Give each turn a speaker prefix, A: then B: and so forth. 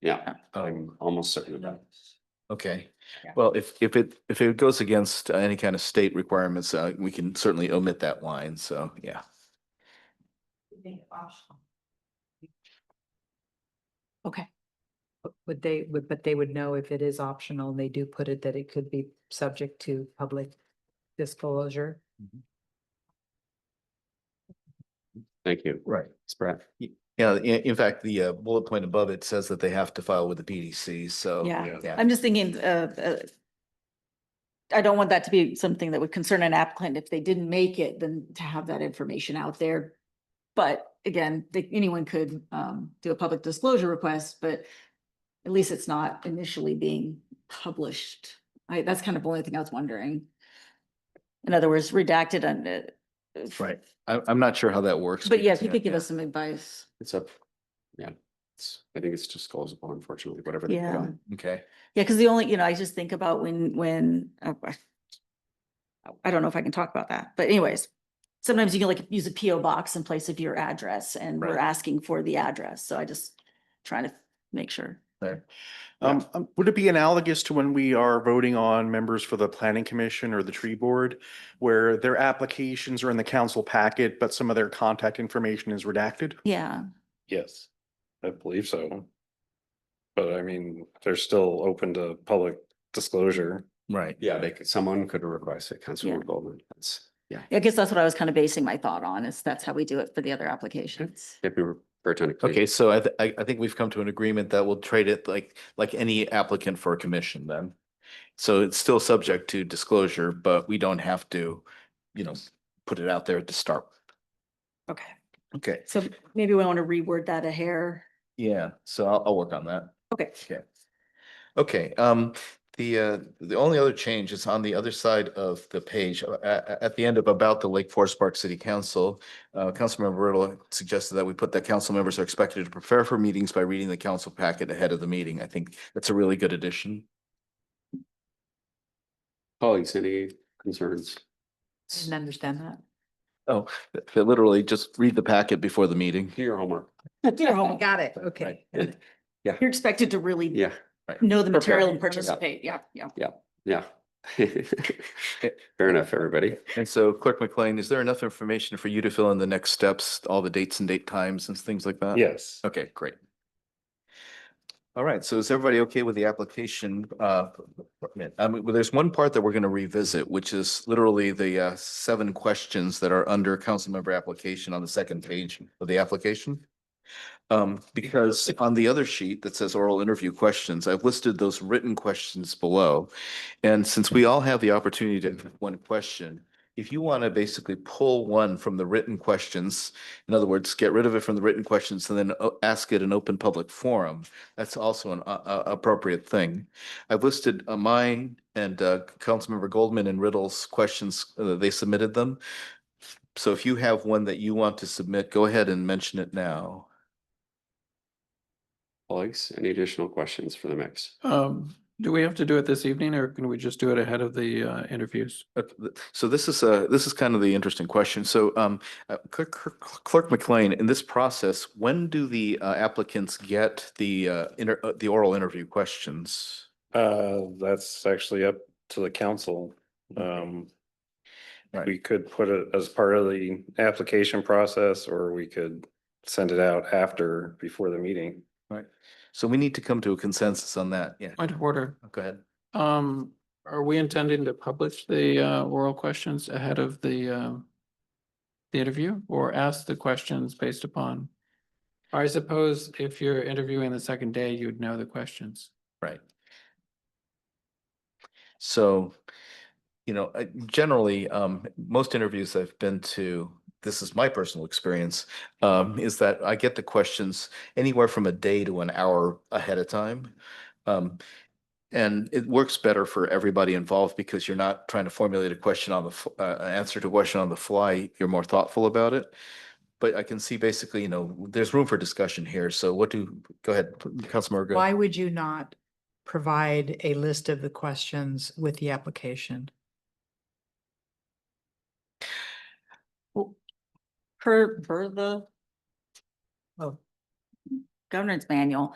A: Yeah,
B: Um,
A: I'm almost certain of that.
B: okay.
C: Yeah.
B: Well, if, if it, if it goes against uh, any kind of state requirements, uh, we can certainly omit that line. So, yeah.
C: Okay. But Would they, would, but they would know if it is optional and they do put it that it could be subject to public disclosure?
A: Thank you.
B: Right.
A: It's Brett.
B: Yeah, in, in fact, the uh, bullet point above it says that they have to file with the PDC, so.
D: Yeah.
B: Yeah,
D: I'm just thinking, uh, uh, I don't want that to be something that would concern an applicant. If they didn't make it, then to have that information out there. But again, they- anyone could, um, do a public disclosure request, but at least it's not initially being published. I, that's kind of the only thing I was wondering. In other words, redacted and, uh,
B: Right. I, I'm not sure how that works.
D: But yeah,
B: yes,
D: if you could give us some advice.
A: It's up. Yeah, it's, I think it's disclosable unfortunately, whatever. they put
D: Yeah.
A: on.
B: Okay,
D: Yeah, because the only, you know, I just think about when, when, uh, I I don't know if I can talk about that, but anyways, sometimes you can like use a PO box in place of your address and we're
A: Right.
D: asking for the address. So I just trying to make sure.
B: there.
E: Um, um, would it be analogous to when we are voting on members for the planning commission or the tree board? Where their applications are in the council packet, but some of their contact information is redacted?
D: Yeah,
F: Yes, I believe so. But I mean, they're still open to public disclosure.
B: Right.
A: Yeah, they could, someone could request it, Councilwoman
D: Yeah.
A: Goldman. That's, yeah.
D: I guess that's what I was kind of basing my thought on is that's how we do it for the other applications.
A: If we refer to.
B: Okay, so I, th- I, I think we've come to an agreement that we'll trade it like, like any applicant for a commission then. So it's still subject to disclosure, but we don't have to, you know, put it out there at the start.
D: Okay,
B: Okay,
D: so maybe we want to reword that a hair.
B: yeah, so I'll, I'll work on that.
D: Okay.
B: Okay. Okay, um, the, uh, the only other change is on the other side of the page, uh, at, at the end of about the Lake Forest Park City Council. Uh, Councilmember Riddle suggested that we put that council members are expected to prepare for meetings by reading the council packet ahead of the meeting. I think that's a really good addition.
A: Colleagues, any concerns?
C: I Didn't understand that.
B: Th- they Literally, just read the packet before the meeting.
A: Do your homework.
C: Got it, okay.
A: Right.
D: You're expected to really
A: Oh. Yeah,
D: know the material and
C: Prepare. Yeah.
D: participate. Yeah, yeah.
A: yeah. Fair enough, everybody.
B: And so Clerk McLean, is there enough information for you to fill in the next steps, all the dates and date times and things like that?
F: Yes.
B: Okay, great. All right, so is everybody okay with the application? uh, permit? I mean, well, there's one part that we're going to revisit, which is literally the uh, seven questions that are under council member application on the second page of the application. Um, Because on the other sheet that says oral interview questions, I've listed those written questions below. And since we all have the opportunity to have one question, if you want to basically pull one from the written questions in other words, get rid of it from the written questions and then o- ask it in open public forum. That's also an uh, uh, appropriate thing. I've listed uh, mine and uh, Councilmember Goldman and Riddle's questions, uh, they submitted them. So if you have one that you want to submit, go ahead and mention it now.
A: Colleagues, any additional questions for the mix?
G: Um, do we have to do it this evening or can we just do it ahead of the uh interviews?
B: Uh, th- So this is a, this is kind of the interesting question. So um, uh, Clerk- Clerk Clerk McLean, in this process, when do the uh, applicants get the uh, inter- uh, the oral interview questions?
F: Uh, that's actually up to the council. Um,
B: Right.
F: we could put it as part of the application process or we could send it out after, before the meeting.
B: So we need to come to a consensus on that. Yeah,
G: Point of order.
B: go ahead.
G: Um, are we intending to publish the uh oral questions ahead of the um the interview or ask the questions based upon? I suppose if you're interviewing the second day, you'd know the questions.
B: Right. So, you know, I- generally, um, most interviews I've been to, this is my personal experience, um, is that I get the questions anywhere from a day to an hour ahead of time. Um, and it works better for everybody involved because you're not trying to formulate a question on the, f- uh, an answer to a question on the fly. You're more thoughtful about it. But I can see basically, you know, there's room for discussion here. So what do, go ahead, Councilmember. Good.
C: Why would you not provide a list of the questions with the application?
D: Per, per the
C: Oh.
D: governance manual,